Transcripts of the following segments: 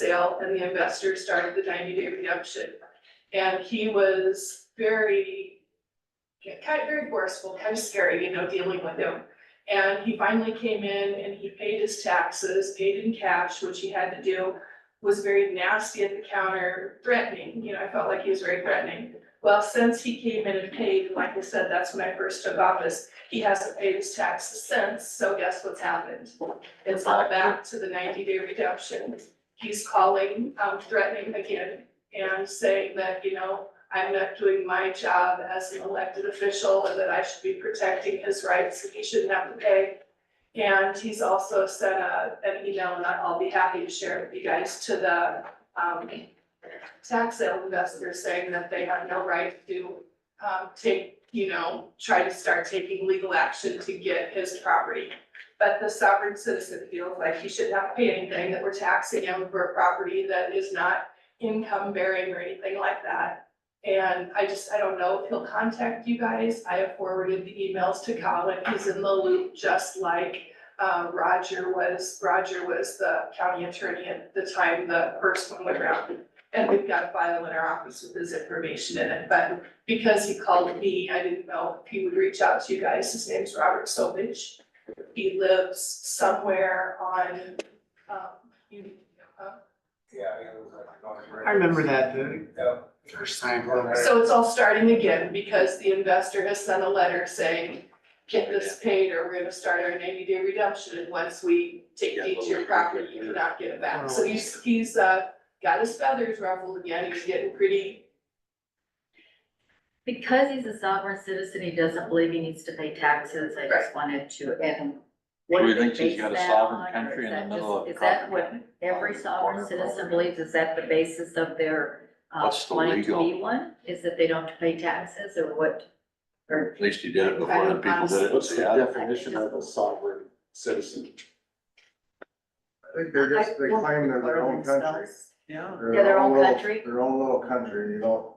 sale and the investor started the ninety day redemption. And he was very, kind of very forceful, kind of scary, you know, dealing with him. And he finally came in and he paid his taxes, paid in cash, which he had to do, was very nasty at the counter, threatening, you know, I felt like he was very threatening. Well, since he came in and paid, like I said, that's when I first took office, he hasn't paid his taxes since, so guess what's happened? It's all back to the ninety day redemption. He's calling, um, threatening again and saying that, you know, I'm not doing my job as an elected official and that I should be protecting his rights and he shouldn't have to pay. And he's also sent a, an email, and I'll be happy to share it with you guys, to the, um, tax sale investors saying that they have no right to, um, take, you know, try to start taking legal action to get his property. But the sovereign citizen feels like he should not pay anything, that we're taxing him for a property that is not income bearing or anything like that. And I just, I don't know if he'll contact you guys. I have forwarded the emails to Colin. He's in the loop, just like uh, Roger was, Roger was the county attorney at the time the first one went around. And we've got a file in our office with his information in it, but because he called me, I didn't know if he would reach out to you guys. His name's Robert Sovich. He lives somewhere on, um, you, uh, Yeah. it was like North River. I remember that the Yeah. first time. So it's all starting again because the investor has sent a letter saying, get this paid or we're gonna start our ninety day redemption. And once we take deed to your property, you cannot get it back. So he's, he's, uh, got his feathers ruffled again. He's getting pretty, Because he's a sovereign citizen, he doesn't believe he needs to pay taxes, I just wanted to, and. what Do we they think he's base got a that sovereign on, or country is in the that middle just- of Is that property? what every sovereign citizen believes, is that the basis of their, uh, What's the claim to be legal- one? Is that they don't pay taxes, or what? Or, At least you did it before other people did it. What's the Yeah. definition of a sovereign citizen? I think they're just, they claim they're their own country. Yeah. Yeah, their own little- country. Their own little country, you don't,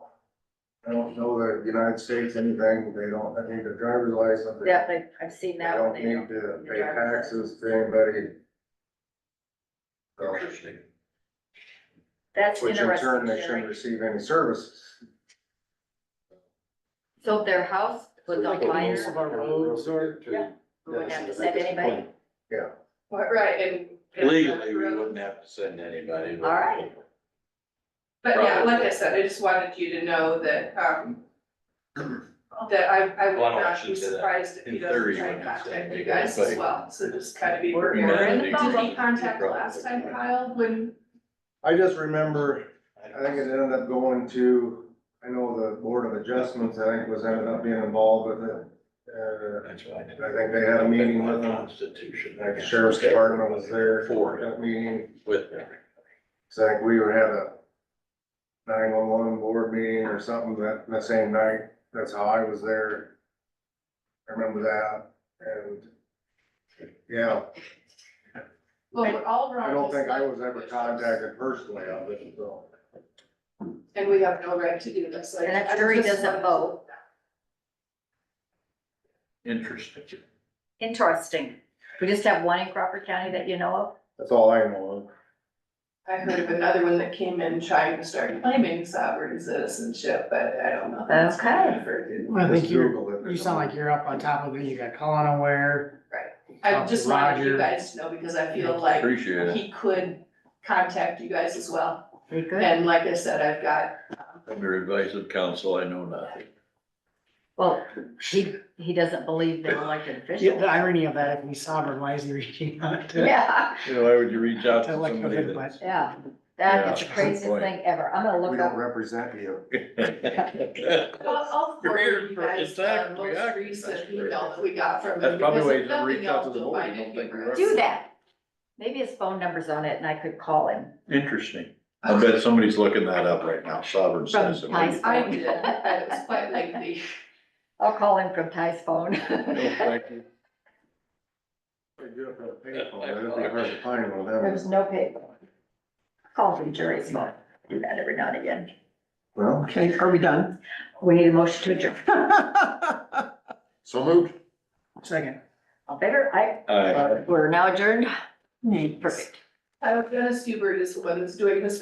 they don't know the United States anything, they don't, they need a driver's license. they- yeah, like, I've seen They that don't one, they need don't. to the pay driver's taxes to anybody. So, That's Which in turn, interesting, they shouldn't Sherry. receive any services. So if their house was on Most fire, of our roads are- Yeah. we wouldn't have to send anybody, right, and. and- Legally, we wouldn't have to send anybody. but- all right, But yeah, like I said, I just wanted you to know that, um, that I, I would Well, I don't not actually be say that. surprised if In he doesn't theory, try and when you say contact you make guys as anybody- well. So just kind of be We're prepared. not And addicted did to he contact drugs. last time, Kyle, when I just remember I think it it's ended up going to, I know the Board of Adjustments, I think, was ended up being involved with it. Uh, That's what I did. I think they had a meeting with uh, them. Constitution. like the Sheriff's Department was there for For, that meeting. with, So like we would have a nine-one-one board meeting or something that, that same night. That's how I was there. I remember that and, yeah, Well, we're all wrong. I don't think I was ever contacted personally on it, so. And we have no right to do this, like. And I'm I sure he just doesn't wanted to- vote. interesting. interesting. We just have one in Crawford County that you know of? That's all I know of. I heard of another one that came in trying to start claiming sovereign citizenship, but I don't know. if that's what Okay. I've heard. I think Just you're, Google it. you sound like you're up on top of it. You got Colin aware. I just wanted you Roger. guys to know because I feel like Appreciate it. he could contact you guys as well. Very good. And like I said, I've got, Under advice of counsel, I know nothing. Well, he, he doesn't believe they're elected Yeah, the officials. irony of that, if we sovereign, why is he reaching out to? Yeah, You know, why would you reach out to to elect somebody a that? yeah. That is Yeah, the good craziest point. thing ever. I'm gonna We look don't up, represent you. I'll, I'll forward you You're- guys the exactly, yeah, most that's recent great. email that we got from him. That's probably because why if nothing he doesn't reach out to the else, board, you'll you don't find it think we humorous. do that. Maybe his phone number's on it and I could call him. Interesting. I bet somebody's looking that up right now, sovereign From citizen. Ty's I phone. did, but it was quite lengthy. I'll call him from Ty's phone. No, thank you. They do have a payphone, that'd be hard to find one, that There's no paper. Call from Jerry's phone. Do that every now and again. Well, Okay, are we done? We need a motion to adjourn. so moved. Second. All better, I, All right. we're now adjourned. Perfect. Uh, Dennis Hubert is the one that's doing this